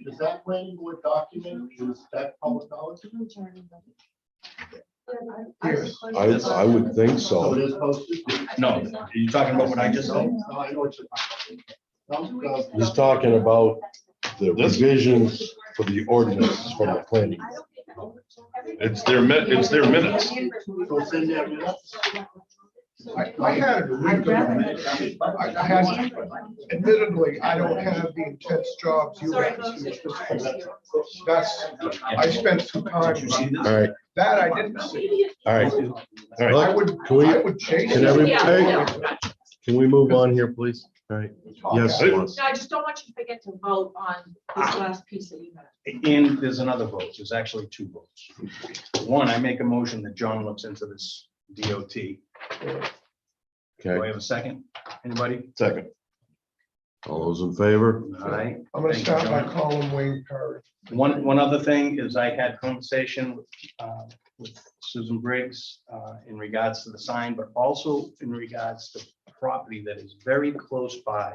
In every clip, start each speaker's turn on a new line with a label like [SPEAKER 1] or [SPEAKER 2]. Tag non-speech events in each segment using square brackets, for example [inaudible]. [SPEAKER 1] is that planning board document, is that public knowledge? Yes.
[SPEAKER 2] I, I would think
[SPEAKER 1] So it
[SPEAKER 2] so.
[SPEAKER 1] is posted?
[SPEAKER 3] No, are you talking about what I just said?
[SPEAKER 1] No, I know what you're talking about. No, no.
[SPEAKER 2] He's talking about the
[SPEAKER 4] This-
[SPEAKER 2] revisions for the ordinance from the planning.
[SPEAKER 4] It's their min- it's their minutes.
[SPEAKER 1] So it's in their minutes?
[SPEAKER 5] I, I had it a week ago. I I had, admittedly, I don't have the intense jobs you
[SPEAKER 6] Sorry,
[SPEAKER 5] have.
[SPEAKER 6] folks.
[SPEAKER 5] That's, I spent some time,
[SPEAKER 2] All right,
[SPEAKER 5] that I didn't see.
[SPEAKER 2] all right, all
[SPEAKER 5] I
[SPEAKER 2] right.
[SPEAKER 5] would,
[SPEAKER 2] Can we-
[SPEAKER 5] I would change.
[SPEAKER 2] Can
[SPEAKER 5] it.
[SPEAKER 2] every, hey, can we move on here, please? All right, yes. Lawrence.
[SPEAKER 6] No, I just don't want you to forget to vote on this last piece that you have.
[SPEAKER 3] And there's another vote, there's actually two votes. One, I make a motion that John looks into this DOT. Do I
[SPEAKER 2] Okay,
[SPEAKER 3] have a second? Anybody?
[SPEAKER 2] second. All those in favor?
[SPEAKER 3] All right.
[SPEAKER 5] I'm gonna
[SPEAKER 3] Thank you,
[SPEAKER 5] stop by
[SPEAKER 3] John.
[SPEAKER 5] calling Wayne Perry.
[SPEAKER 3] One, one other thing is I had conversation with, uh, with Susan Briggs uh, in regards to the sign, but also in regards to property that is very close by,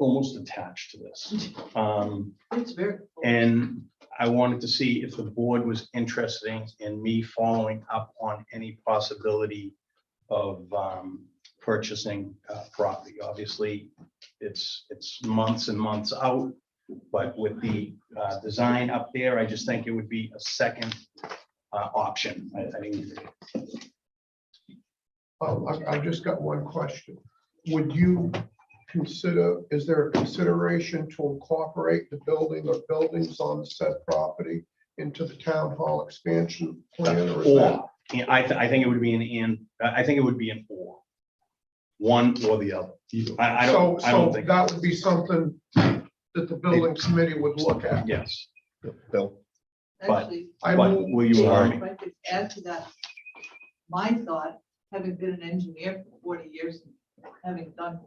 [SPEAKER 3] almost attached to this. Um,
[SPEAKER 6] It's very.
[SPEAKER 3] And I wanted to see if the board was interested in- in me following up on any possibility of um, purchasing uh, property. Obviously, it's, it's months and months out. But with the uh, design up there, I just think it would be a second uh, option. I I mean,
[SPEAKER 5] Um, I, I just got one question. Would you consider, is there a consideration to incorporate the building or buildings on said property into the town hall expansion plan? or is that-
[SPEAKER 3] or, yeah, I, th- I think it would be an and, I I think it would be an or. One or the other. I, I
[SPEAKER 5] So,
[SPEAKER 3] don't, I don't
[SPEAKER 5] so
[SPEAKER 3] think,
[SPEAKER 5] that would be something that the building committee would look at.
[SPEAKER 3] yes.
[SPEAKER 2] Bill.
[SPEAKER 3] But-
[SPEAKER 7] Actually,
[SPEAKER 5] I
[SPEAKER 3] But
[SPEAKER 5] move-
[SPEAKER 3] will you allow me?
[SPEAKER 7] if I could add to that, my thought, having been an engineer for forty years, and having done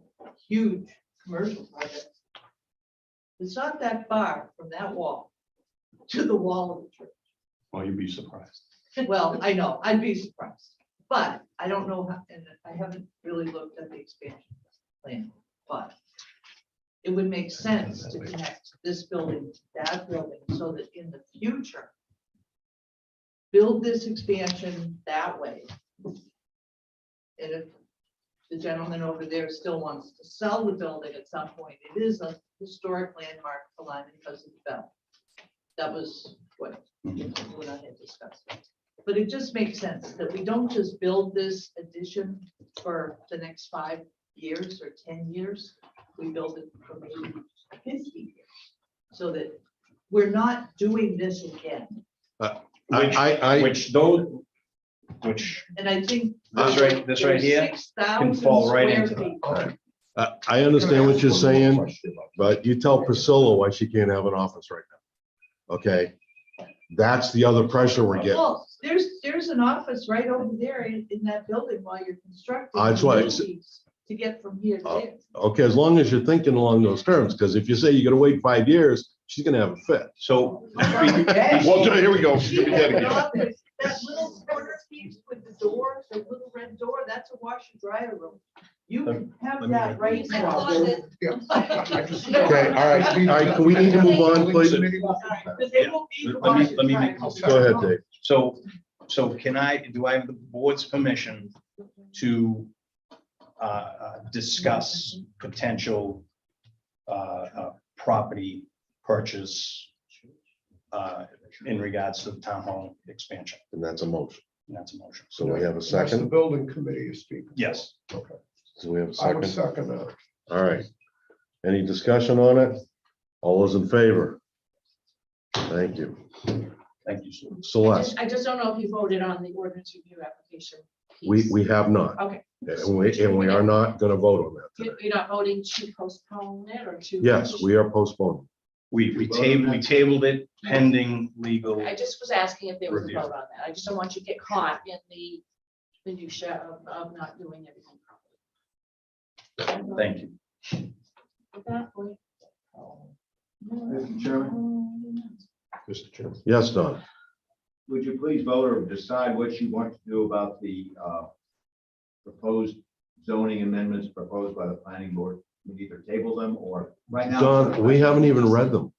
[SPEAKER 7] huge commercial projects, it's not that far from that wall to the wall of the church.
[SPEAKER 3] Well, you'd be surprised.
[SPEAKER 7] Well, I know, I'd be surprised, but I don't know, how- and I haven't really looked at the expansion plan, but it would make sense to connect this building to that building, so that in the future, build this expansion that way. And if the gentleman over there still wants to sell the building at some point, it is a historic landmark for Lyme because of the bell. That was what, what I had discussed. But it just makes sense that we don't just build this addition for the next five years or ten years. We build it for maybe fifty years. So that we're not doing this again.
[SPEAKER 2] I,
[SPEAKER 3] Which,
[SPEAKER 2] I, I,
[SPEAKER 3] which those, which
[SPEAKER 7] And I think.
[SPEAKER 3] this right, this right here,
[SPEAKER 7] Six thousand
[SPEAKER 3] fall right
[SPEAKER 7] square
[SPEAKER 3] into that.
[SPEAKER 7] feet.
[SPEAKER 2] I- I understand what you're saying. But you tell Priscilla why she can't have an office right now. Okay? That's the other pressure we're getting.
[SPEAKER 7] Well, Oh, there's, there's an office right over there in, in that building while you're constructing.
[SPEAKER 2] Uh, that's why
[SPEAKER 7] You
[SPEAKER 2] it's-
[SPEAKER 7] need To get from here to
[SPEAKER 2] Uh, [laughs]
[SPEAKER 7] there.
[SPEAKER 2] Okay, as long as you're thinking along those terms, because if you say you're gonna wait five years, she's gonna have a fit.
[SPEAKER 3] so.
[SPEAKER 4] Well, here we go.
[SPEAKER 7] She
[SPEAKER 4] Get
[SPEAKER 7] had
[SPEAKER 4] it
[SPEAKER 7] an
[SPEAKER 4] again.
[SPEAKER 7] office, That little corner piece with the door, the little red door, that's a washer dryer room. You can have
[SPEAKER 3] Let me-
[SPEAKER 7] that right
[SPEAKER 3] Next
[SPEAKER 7] now.
[SPEAKER 5] Yeah.
[SPEAKER 7] [laughs]
[SPEAKER 5] I just-
[SPEAKER 2] Okay, all right, all right, can we need to move on, please?
[SPEAKER 7] Because they will be the
[SPEAKER 3] Let me-
[SPEAKER 7] washer
[SPEAKER 3] let me
[SPEAKER 7] dryer
[SPEAKER 3] make-
[SPEAKER 7] room.
[SPEAKER 2] Go ahead, Dave.
[SPEAKER 3] So, so can I, do I have the board's permission to uh, uh, discuss potential uh, uh, property purchase uh, in regards to the town hall expansion?
[SPEAKER 2] And that's a motion.
[SPEAKER 3] And That's a motion.
[SPEAKER 2] So we have a
[SPEAKER 5] That's the
[SPEAKER 2] second.
[SPEAKER 5] building committee is speaking.
[SPEAKER 3] Yes.
[SPEAKER 5] Okay.
[SPEAKER 2] So we have a
[SPEAKER 5] I would
[SPEAKER 2] second.
[SPEAKER 5] second that.
[SPEAKER 2] All right. Any discussion on it? All those in favor? Thank you.
[SPEAKER 3] Thank you, Sue.
[SPEAKER 6] I
[SPEAKER 2] Celeste,
[SPEAKER 6] just- I just don't know if you voted on the ordinance review application.
[SPEAKER 2] we,
[SPEAKER 6] piece.
[SPEAKER 2] we have not.
[SPEAKER 6] Okay.
[SPEAKER 2] And we, and we are not gonna vote on that
[SPEAKER 6] You-
[SPEAKER 2] today.
[SPEAKER 6] You're not voting to postpone it or to?
[SPEAKER 2] Yes, we are postponing.
[SPEAKER 3] We, we tabled, we tabled it pending legal.
[SPEAKER 6] I just was asking if there was a
[SPEAKER 3] Review.
[SPEAKER 6] vote on that. I just don't want you to get caught in the minutia of, of not doing everything properly.
[SPEAKER 3] Thank you.
[SPEAKER 6] At that point,
[SPEAKER 8] Mr. Chairman,
[SPEAKER 6] um,
[SPEAKER 2] Mr. Chairman. Yes, Don.
[SPEAKER 8] would you please vote or decide what you want to do about the uh, proposed zoning amendments proposed by the planning board? We either table them or right now.
[SPEAKER 2] Don, we haven't even read them.